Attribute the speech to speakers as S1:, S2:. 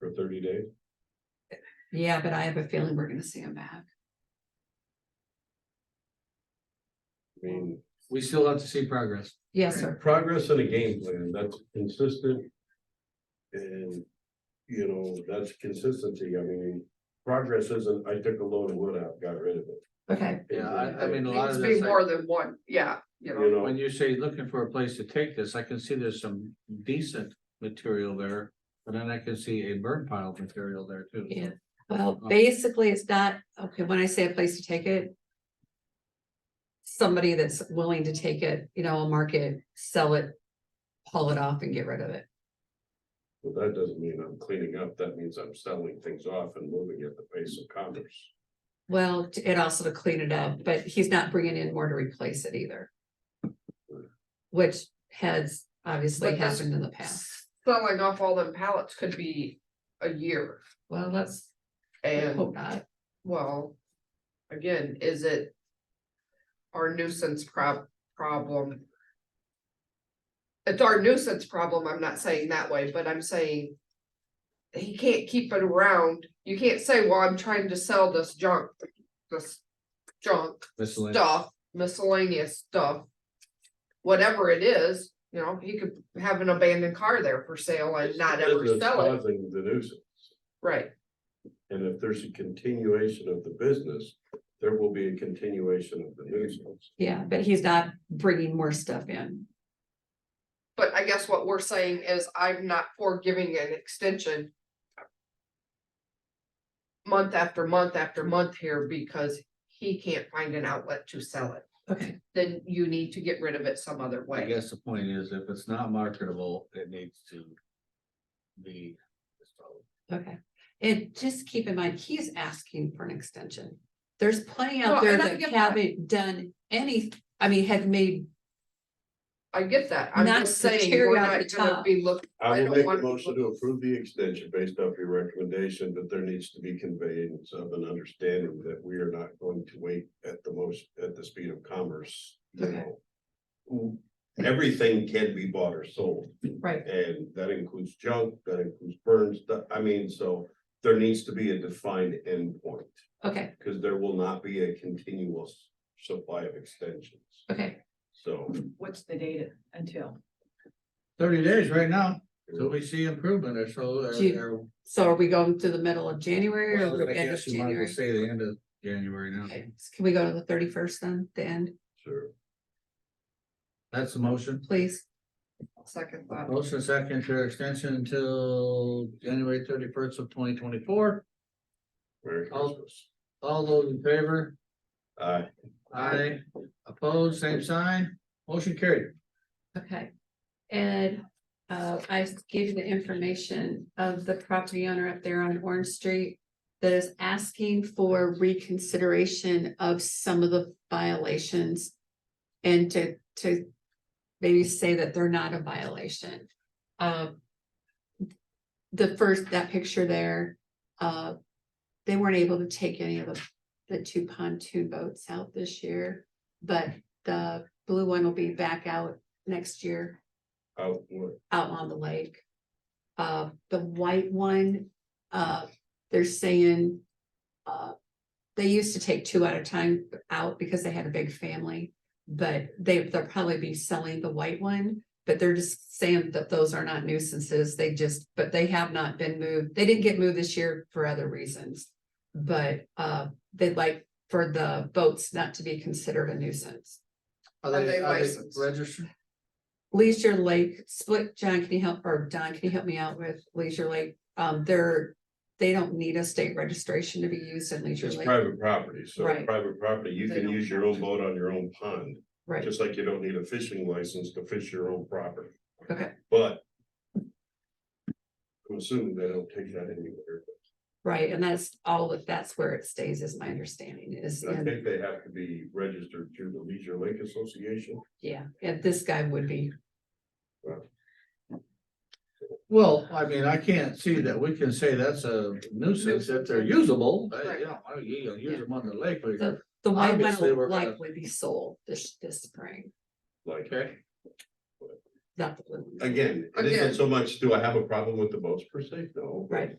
S1: for thirty days?
S2: Yeah, but I have a feeling we're gonna see him back.
S1: I mean,
S3: We still have to see progress.
S2: Yes, sir.
S1: progress and a game plan, that's consistent. And, you know, that's consistency, I mean, progress isn't, I took a load of wood out, got rid of it.
S2: Okay,
S3: Yeah, I, I mean, a lot
S4: Needs
S3: of
S4: to be
S3: this,
S4: more
S3: I-
S4: than one, yeah, you
S1: You
S4: know,
S1: know,
S3: when you say looking for a place to take this, I can see there's some decent material there. But then I can see a burn pile of material there too. so.
S2: Yeah. well, basically, it's not, okay, when I say a place to take it. Somebody that's willing to take it, you know, market, sell it, haul it off and get rid of it.
S1: well, that doesn't mean I'm cleaning up, that means I'm selling things off and moving at the pace of commerce.
S2: Well, t- and also to clean it up, but he's not bringing in more to replace it either. Which has obviously
S4: But that's-
S2: happened in the past.
S4: selling off all them pallets could be a year
S2: Well, let's hope
S3: Oh.
S4: and,
S2: not.
S4: well. Again, is it? Our nuisance prob- problem. It's our nuisance problem, I'm not saying that way, but I'm saying. He can't keep it around, you can't say, well, I'm trying to sell this junk, this junk.
S3: Miscellaneous.
S4: stuff, miscellaneous stuff. Whatever it is, you know, he could have an abandoned car there for sale and not ever
S1: Business
S4: sell it,
S1: Causing the nuisance,
S4: right?
S1: and if there's a continuation of the business, there will be a continuation of the nuisance.
S2: Yeah, but he's not bringing more stuff in.
S4: But I guess what we're saying is I'm not for giving an extension. Month after month after month here because he can't find an outlet to sell it,
S2: Okay,
S4: then you need to get rid of it some other
S3: I
S4: way.
S3: guess the point is if it's not marketable, it needs to be.
S2: okay. And just keep in mind, he's asking for an extension. There's plenty
S4: No,
S2: out there
S4: and I
S2: that
S4: get that.
S2: haven't done any, I mean, have made,
S4: I get that, I'm
S2: Not
S4: just
S2: the
S4: saying,
S2: cherry
S4: we're
S2: on
S4: not
S2: the
S4: gonna
S2: top.
S4: be looking, I
S1: I will
S4: don't
S1: make a
S4: want-
S1: motion to approve the extension based off your recommendation, but there needs to be conveyance of an understanding that we are not going to wait at the most, at the speed of commerce. you
S2: Okay.
S1: know. Mm, Everything can be bought or sold,
S2: right,
S1: and that includes junk, that includes burns, I mean, so there needs to be a defined endpoint,
S2: okay,
S1: because there will not be a continuous supply of extensions,
S2: okay.
S1: so.
S5: What's the data until?
S3: Thirty days right now, till we see improvement or so. or-
S2: Gee.
S3: or-
S2: So are we going to the middle of January
S3: Well,
S2: or
S3: I
S2: end of
S3: guess you might as well
S2: January?
S3: Say the end of January now.
S2: Okay, Can we go to the thirty-first then, the end,
S1: Sure.
S3: That's the motion.
S2: please?
S4: second thought.
S3: Motion second to extension until January thirty first of twenty twenty four.
S1: Merry
S3: I'll-
S1: Christmas.
S3: All those in favor?
S1: Aye.
S3: Aye. Opposed, same sign. Motion carried.
S2: Okay. And uh, I gave you the information of the property owner up there on Orange Street that is asking for reconsideration of some of the violations and to, to maybe say that they're not a violation. Um, the first, that picture there, uh, they weren't able to take any of the, the two pontoon boats out this year, but the blue one will be back out next year
S1: Out, what?
S2: out on the lake. Uh, the white one, uh, they're saying, uh, they used to take two at a time out because they had a big family. But they, they'll probably be selling the white one, but they're just saying that those are not nuisances. They just, but they have not been moved. They didn't get moved this year for other reasons. But, uh, they'd like for the boats not to be considered a nuisance.
S4: Are they licensed?
S3: Registered?
S2: Leisure Lake, split, John, can you help, or Don, can you help me out with Leisure Lake? Um, they're, they don't need a state registration to be used in Leisure
S1: It's
S2: Lake,
S1: private property, so
S2: Right.
S1: private property, you
S2: They
S1: can
S2: don't
S1: use your own boat on your own pond,
S2: right?
S1: just like you don't need a fishing license to fish your own property,
S2: Okay,
S1: but. I'm assuming they don't take that anywhere,
S2: right, and that's all, that that's where it stays, is my understanding, is,
S1: I
S2: in-
S1: think they have to be registered through the Leisure Lake Association.
S2: yeah, and this guy would be,
S3: Well, I mean, I can't see that we can say that's a nuisance if they're usable. Uh,
S4: Right.
S3: You know, I don't- you don't use them on the lake. but-
S2: the, the white one
S3: Obviously, we're
S2: will
S3: gonna-
S2: likely be sold this, this spring,
S1: Like,
S3: Okay,
S2: not the blue one.
S1: again, it isn't
S4: Again.
S1: so much, do I have a problem with the boats per se? No. but
S2: Right.